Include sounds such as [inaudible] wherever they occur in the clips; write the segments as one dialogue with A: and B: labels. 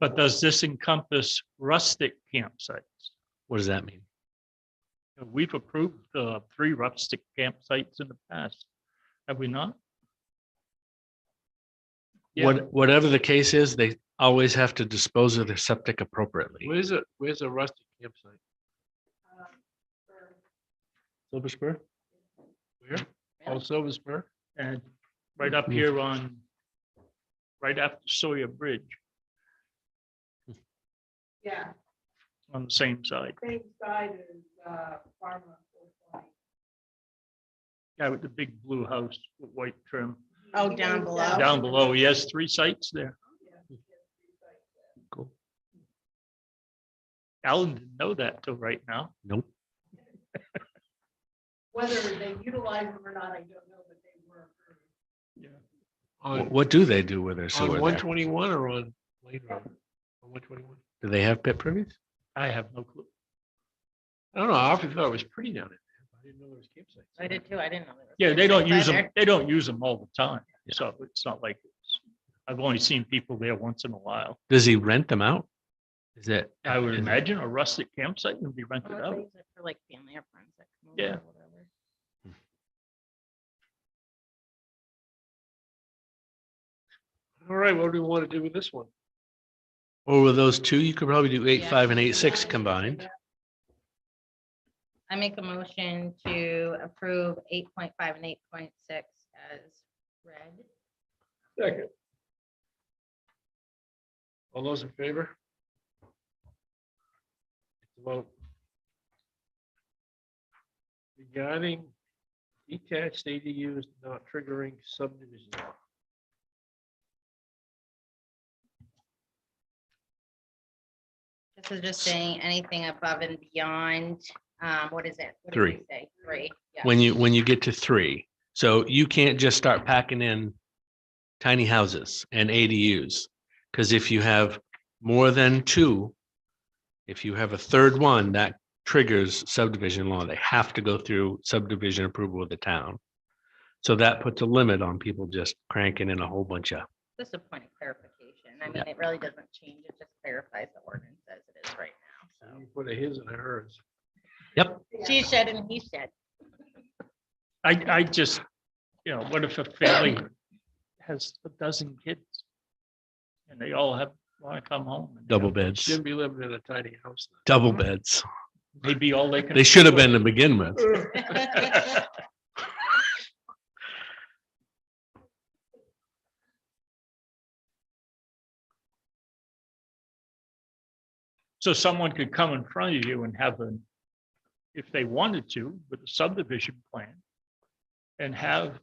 A: But does this encompass rustic campsites?
B: What does that mean?
A: We've approved uh, three rustic campsites in the past, have we not? Yeah.
B: What, whatever the case is, they always have to dispose of their septic appropriately.
C: Where's it, where's a rustic campsite?
B: Silver Spur?
C: Where? Oh, Silver Spur?
A: And right
C: Mm-hmm.
A: up here on, right after Sawyer Bridge
D: Yeah,
A: on the same side.
D: same side as, uh, Farmer.
A: Yeah, with the big blue house with white trim.
E: Oh, down below.
A: Down below, he has three sites there.
B: Cool.
A: Alan didn't know that till right now.
B: Nope.
D: Whether they utilize them or not, I don't know, but they were. approved.
B: Wh-
C: On,
B: What do they do with their
C: on
B: sewer
C: one
B: there?
C: twenty-one or on Lane Road? On one twenty-one?
B: Do they have pit privies?
A: I have no clue.
C: I don't know, I often thought it was pretty down there. I didn't know there was campsites.
E: I did too. I didn't know. there
A: Yeah,
E: was
A: they don't
E: campsites
A: use them,
E: either.
A: they don't use them all the time. So it's not like, it's- I've only seen people there once in a while.
B: Does he rent them out? Is it?
A: I would
B: is-
A: imagine a rustic campsite would be rented
E: Or they
A: out.
E: use it For like family or friends. that come over
A: Yeah.
E: or whatever.
C: All right, what do we want to do with this one?
B: Or with those two, you could probably do eight,
E: Yeah.
B: five and eight, six combined.
E: I make a motion to approve eight point five and eight point six as read.
C: Second. All those in favor? Vote. Regarding detached ADUs not triggering subdivision. law.
E: This is just saying anything above and beyond, um, what is it? What did
B: Three.
E: we say? Three. yeah.
B: When you, when you get to three. So you can't just start packing in tiny houses and ADUs. Because if you have more than two, if you have a third one, that triggers subdivision law. They have to go through subdivision approval of the town. So that puts a limit on people just cranking in a whole bunch of,
E: Just a point of clarification. I mean, it really doesn't change. It just clarifies the ordinance as it is right
C: So
A: Mm-hmm.
C: we Put a his and a hers.
E: now. She said and he said.
A: I, I just, you know, what if a family has a dozen kids? And they all have, want to come home. and
B: double beds,
C: Shouldn't be living in a tiny house.
B: double beds.
A: Maybe all they can.
B: They should have been to begin with.
A: [laughs] So someone could come in front of you and have an, if they wanted to, with a subdivision plan. And have,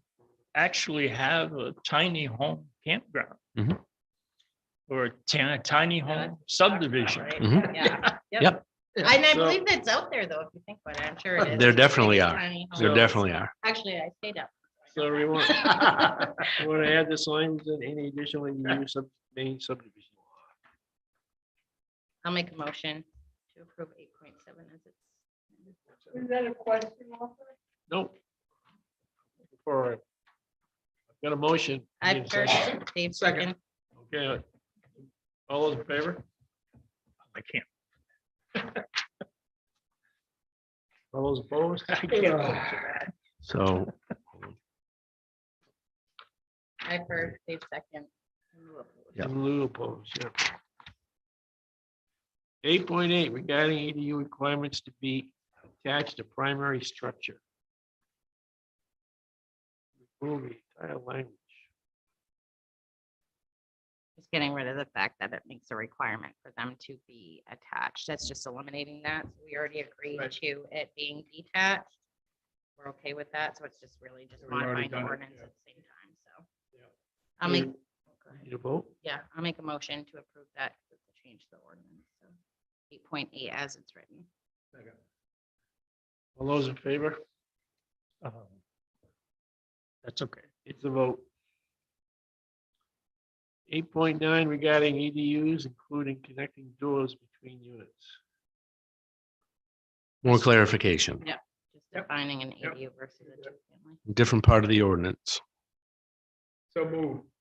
A: actually have a tiny home campground.
B: Mhm.
A: Or a ti- tiny home subdivision.
E: Right,
B: Mhm.
E: Yeah.
B: Yep.
E: And I
C: So-
E: believe that's out there though, if you think about it, I'm sure it is.
B: There definitely are.
E: Tiny
B: There
E: homes.
B: definitely are.
E: Actually, I stayed up.
C: So we want, we want to add this language and any additional ADU sub, main subdivision. law.
E: I'll make a motion to approve eight point seven as it's.
D: Is that a question also?
C: Nope. Before I- I've got a motion. I
E: I
C: need a second.
E: first, Dave
C: Second.
E: second.
C: Okay. uh, All those in favor?
A: I can't,
C: All those opposed?
A: I can't. vote for that.
B: So
E: I first, Dave second.
B: Yeah.
C: In lieu opposed, yeah. Eight point eight, regarding ADU requirements to be attached to primary structure. Remove the entire language.
E: Just getting rid of the fact that it makes a requirement for them to be attached. That's just eliminating that. We already agreed
C: Right.
E: to it being detached. We're okay with that, so it's just really just
C: We've already
E: modifying the
C: done it,
E: ordinance
C: yeah.
E: at the same time, so.
C: Yeah.
E: I'll make,
A: Mm.
C: Need- Need a vote?
E: yeah, I'll make a motion to approve that, to change the ordinance. so Eight point eight as it's written.
C: All those in favor?
A: Um, That's okay.
C: It's a vote. Eight point nine regarding EDUs, including connecting doors between units.
B: more clarification.
E: Just defining an
C: Yep.
E: ADU versus a two-family.
B: different part of the ordinance.
C: So move.